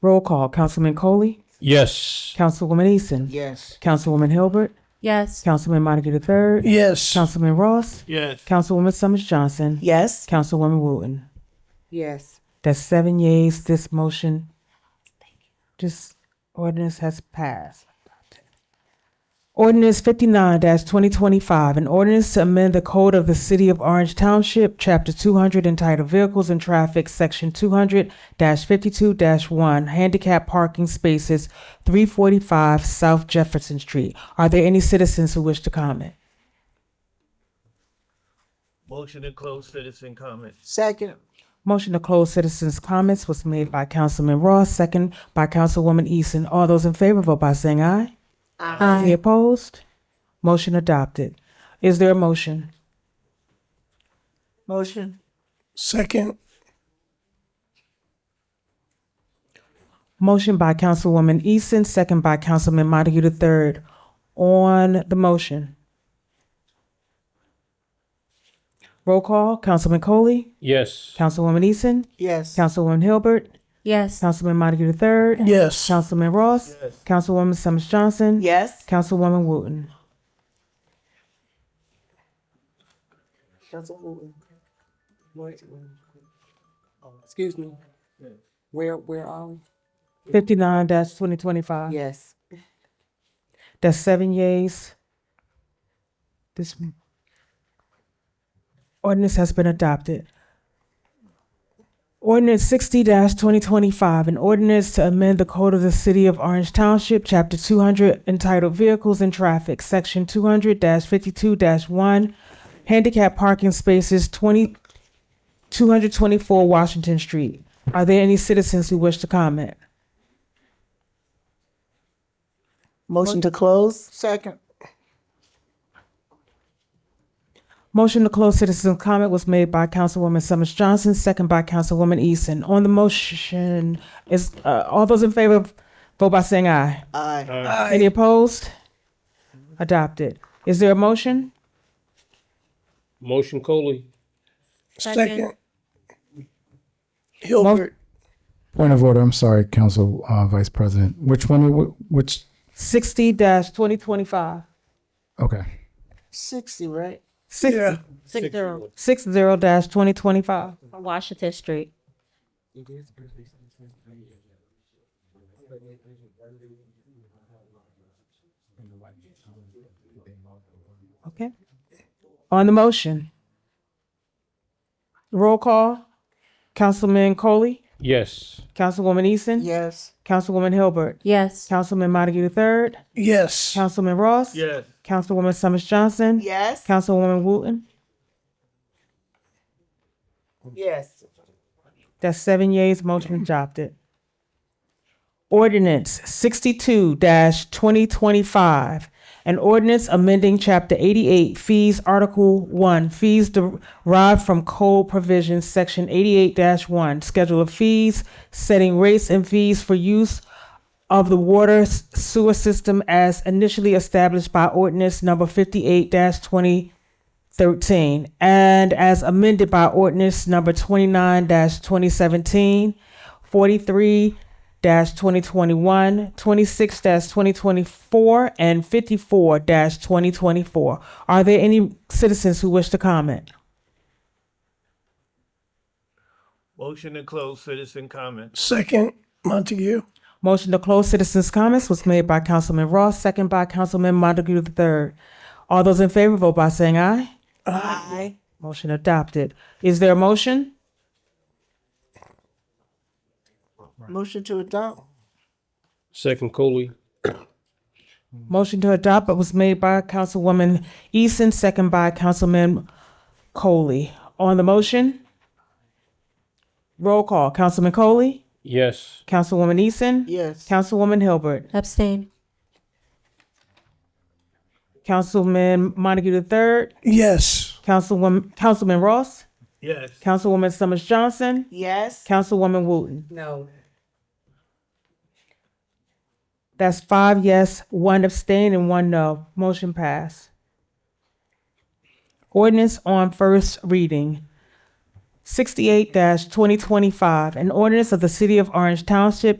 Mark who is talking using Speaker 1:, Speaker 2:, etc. Speaker 1: Roll call, Councilman Coley,
Speaker 2: Yes.
Speaker 1: Councilwoman Easton,
Speaker 3: Yes.
Speaker 1: Councilwoman Hilbert,
Speaker 4: Yes.
Speaker 1: Councilman Montague the third,
Speaker 2: Yes.
Speaker 1: Councilman Ross,
Speaker 2: Yes.
Speaker 1: Councilwoman Summers Johnson,
Speaker 5: Yes.
Speaker 1: Councilwoman Wooten.
Speaker 3: Yes.
Speaker 1: That's seven yeas, this motion, this ordinance has passed. Ordinance fifty-nine twenty twenty-five, an ordinance to amend the code of the city of Orange Township, chapter two hundred entitled Vehicles and Traffic, section two hundred fifty-two one, handicap parking spaces, three forty-five South Jefferson Street. Are there any citizens who wish to comment?
Speaker 2: Motion to close citizen comments.
Speaker 3: Second.
Speaker 1: Motion to close citizens' comments was made by Councilman Ross, second by Councilwoman Easton. All those in favor vote by saying aye. Any opposed? Motion adopted. Is there a motion?
Speaker 5: Motion.
Speaker 2: Second.
Speaker 1: Motion by Councilwoman Easton, second by Councilman Montague the third. On the motion. Roll call, Councilman Coley,
Speaker 2: Yes.
Speaker 1: Councilwoman Easton,
Speaker 3: Yes.
Speaker 1: Councilwoman Hilbert,
Speaker 4: Yes.
Speaker 1: Councilman Montague the third,
Speaker 2: Yes.
Speaker 1: Councilman Ross, Councilwoman Summers Johnson.
Speaker 5: Yes.
Speaker 1: Councilwoman Wooten.
Speaker 3: Council Wooten. Wait, wait. Oh, Excuse me. Where, where are we?
Speaker 1: Fifty-nine twenty
Speaker 5: Uh,
Speaker 1: twenty-five.
Speaker 3: Yes.
Speaker 1: That's seven yeas. This m- ordinance has been adopted. Ordinance sixty twenty twenty-five, an ordinance to amend the code of the city of Orange Township, chapter two hundred entitled Vehicles and Traffic, section two hundred fifty-two one, handicap parking spaces 20 224 Washington Street. Are there any citizens who wish to comment?
Speaker 5: Motion to close?
Speaker 3: Second.
Speaker 1: Motion to close citizen comment was made by Councilwoman Summers Johnson, second by Councilwoman Easton. On the motion, is, uh, all those in favor, vote by saying aye.
Speaker 3: Aye.
Speaker 2: Uh,
Speaker 1: Any opposed? Adopted. Is there a motion?
Speaker 2: Motion Coley.
Speaker 4: Second.
Speaker 1: Hilbert.
Speaker 6: Point of order, I'm sorry, Council uh, Vice President. Which one, wh- which,
Speaker 1: Sixty twenty twenty-five.
Speaker 6: okay.
Speaker 3: Sixty, right?
Speaker 1: Six,
Speaker 4: Six zero.
Speaker 1: six zero dash twenty twenty-five.
Speaker 4: Washington Street.
Speaker 3: It is.
Speaker 1: Okay. On the motion. Roll call. Councilman Coley,
Speaker 2: Yes.
Speaker 1: Councilwoman Easton.
Speaker 3: Yes.
Speaker 1: Councilwoman Hilbert.
Speaker 4: Yes.
Speaker 1: Councilman Montague the third.
Speaker 2: Yes.
Speaker 1: Councilman Ross.
Speaker 2: Yes.
Speaker 1: Councilwoman Summers Johnson.
Speaker 5: Yes.
Speaker 1: Councilwoman Wooten.
Speaker 3: Yes.
Speaker 1: That's seven yeas, motion adopted. Ordinance sixty-two twenty twenty-five. An ordinance amending chapter eighty-eight fees, article one, fees derived from code provisions, section eighty-eight one, schedule of fees, setting rates and fees for use of the water s- sewer system as initially established by ordinance number fifty-eight twenty 13 and as amended by ordinance number 29 2017 43 2021 26 2024 and 54 2024 are there any citizens who wish to comment
Speaker 7: Motion to close citizen comments.
Speaker 2: Second. Montague.
Speaker 1: motion to close citizens comments was made by councilman ross second by councilman montague the third all those in favor vote by saying aye
Speaker 5: Aye.
Speaker 1: motion adopted is there a motion
Speaker 5: Motion to adopt?
Speaker 2: Second Coley.
Speaker 1: Motion to adopt was made by Councilwoman Easton, second by Councilman Coley. On the motion, roll call. Councilman Coley,
Speaker 2: Yes.
Speaker 1: Councilwoman Easton,
Speaker 3: Yes.
Speaker 1: Councilwoman Hilbert,
Speaker 4: Abstain.
Speaker 1: Councilman Montague the third,
Speaker 2: Yes.
Speaker 1: Councilwoman, Councilman Ross,
Speaker 7: Yes.
Speaker 1: Councilwoman Summers Johnson,
Speaker 5: Yes.
Speaker 1: Councilwoman Wooten.
Speaker 3: No.
Speaker 1: That's five yes, one abstain, and one no. Motion passed. Ordinance on first reading. Sixty-eight twenty twenty-five, an ordinance of the City of Orange Township,